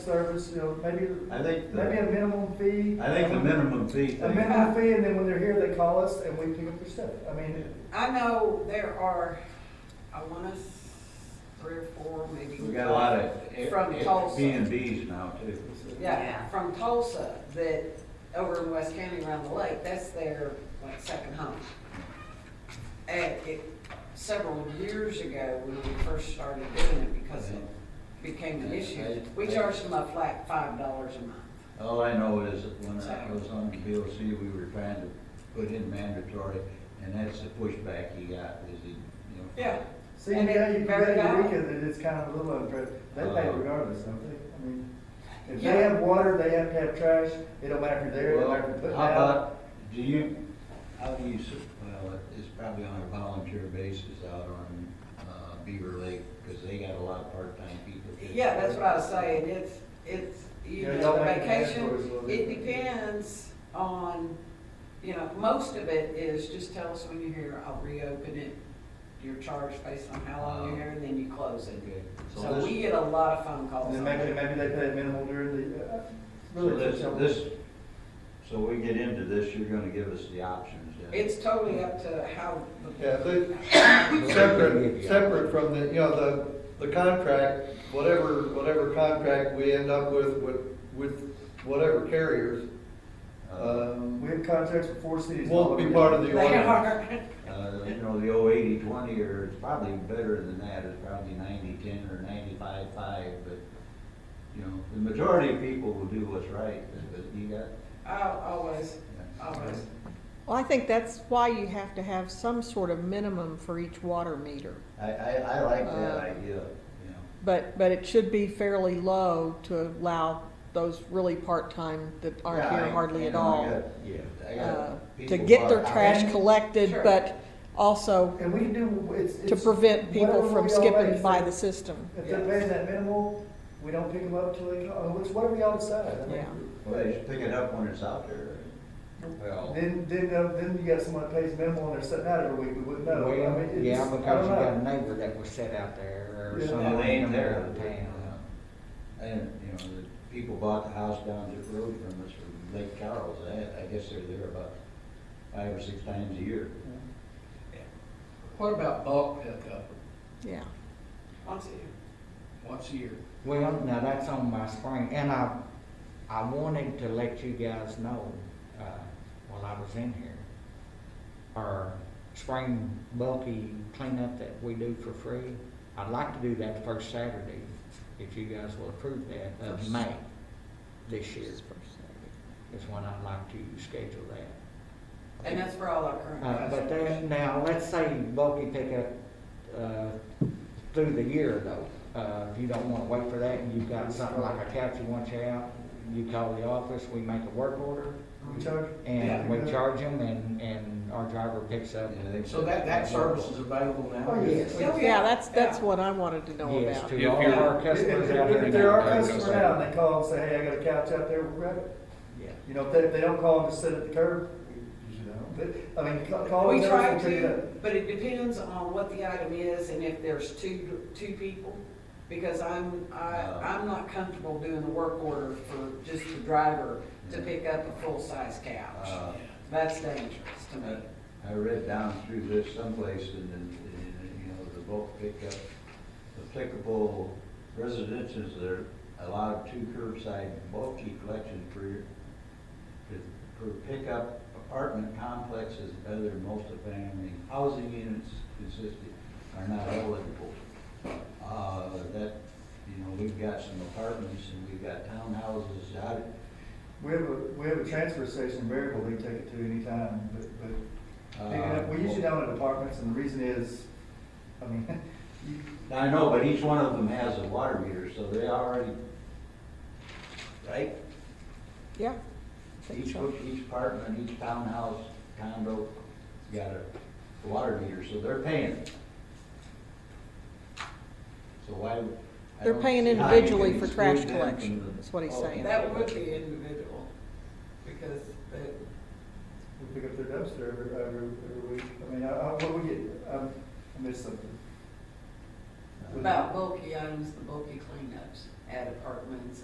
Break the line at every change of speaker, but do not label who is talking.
service, you know, maybe,
I think,
maybe a
the-
minimum fee.
I think the minimum fee
A
thing,
minimum fee, and then when they're here, they call us and we pick up their stuff. I mean,
I know there are, I want us three or four, maybe.
we got a lot of
From
B and
Tulsa.
Bs now too.
Yeah, from Tulsa, that over in West County around the lake, that's their like second home. And it, several years ago, when we first started doing it, because it became an issue, we charged them a flat five dollars a month.
All I know is that when I was on the BOC, we were trying to put in mandatory, and that's the pushback he got, is he, you know.
Yeah.
see,
And
yeah,
it-
you
very
can get a
valid.
weekend, and it's kind of a little unfair. They pay
Uh-huh.
regardless, don't they? I mean, if they
Yeah.
have water, they have to have trash. It don't matter if you're there, it don't
Well,
matter if you're putting
How
out.
about, do you, how do you, s- well, it's probably on a volunteer basis out on, uh, Beaver Lake, because they got a lot of part-time people. too.
Yeah, that's what I was saying, it's, it's, you
Yeah,
know,
y'all
the
make the categories a
vacation,
little
it
different.
depends on, you know, most of it is just tell us when you're here, I'll reopen it. You're charged based on how long you're here, and then you close it.
Okay, so
So we
this,
get a lot of phone calls
And then
on
maybe,
it.
maybe they pay minimal during the, uh,
so
really.
this,
just tell them.
this, so we get into this, you're gonna give us the options then?
It's totally up to how,
Yeah, they, separate, separate from the, you know, the, the contract, whatever, whatever contract we end up with, with, with whatever carriers,
Uh,
We
um,
have contracts with four cities.
won't be part of
they
the ordinance.
are.
Uh, you know, the old eighty twenty, or it's probably better than that, it's probably ninety ten or ninety-five five, but, you know, the majority of people will do what's right, but you got.
I'll always, always.
Well, I think that's why you have to have some sort of minimum for each water meter.
I, I, I like that
Uh,
idea, you know,
But, but it should be fairly low to allow those really part-time that aren't
Yeah,
here
I-
hardly
you
at
know, I
all.
got- Yeah, I
uh,
got
To
people
get their
bought-
trash collected,
Sure.
but also
And we can do, it's, it's.
to prevent people
whatever
from
we all raise,
skipping by
if-
the system.
If they're paying that minimal, we don't pick them up till they, call. which, whatever y'all decide. I mean,
Yeah.
Well, they should pick it up when it's out there. Well.
Then, then, uh, then you got someone that pays minimal and they're sitting out every week, we wouldn't know. I
Well,
mean, it's-
yeah,
I
because
don't
you got a
know.
neighbor that was set out there
Yeah.
or
No,
someone
they ain't
in
there.
there town.
And, you know, the people bought the house down the road from us, from Lake Charles, I, I guess they're there about five or six times a year.
What about bulk pickup
Yeah.
Once a year.
once a year?
Well, now that's on my spring, and I, I wanted to let you guys know, uh, while I was in here, our spring bulky cleanup that we do for free, I'd like to do that first Saturday, if you guys will approve that, of
First-
May this year, is when I'd like to schedule that.
And that's for all our current
Uh,
customers.
But that, now, let's say bulky pickup, uh, through the year though. Uh, if you don't wanna wait for that and you've got something like a couch you want you out, you call the office, we make a work order
We charge.
and we
Yeah.
charge them and, and our driver picks up.
You know, they-
So that, that service is available
Oh,
now?
yes.
Yes.
If-
Yeah, that's, that's
Yeah.
what I wanted to know
Yes,
about.
to all
you're-
of our
If,
customers out
if-
there.
if there are
now.
customers out and they call and say, hey, I got a couch out there, we'll grab it.
Yeah.
You know, if they, if they don't call and just sit at the curb, we usually don't. But, I mean, ca- call.
We
and tell us
try
we'll pick it
to,
up.
but it depends on what the item is and if there's two, two people. Because I'm, I,
Oh.
I'm not comfortable doing the work order for just the driver to
Yeah.
pick up a full-size couch.
Uh,
That's dangerous to me.
I read down through this someplace and, and, and, you know, the bulk pickup, applicable residences that are allowed two curbside bulky collections per, year- per per pickup apartment complexes, other multifamily housing units consisting are not eligible. Uh, that, you know, we've got some apartments and we've got townhouses out,
We have a, we have a transfer station variable they take it to anytime, but, but
uh.
Pick it up. We usually don't have apartments, and the reason is, I mean,
I know, but each one of them has a water meter, so they already, right?
Yeah.
Each, each apartment, each townhouse, condo, got a water meter, so they're paying. So why? would- I
They're
don't
paying
see how you can
individually for trash
exclude them from
collection,
the-
is what he's
Oh,
saying.
That would be individual, because the,
we pick up their dumpster every, every, every week. I mean, I, I, what we get, um, I missed something.
about bulky items, the bulky cleanups at apartments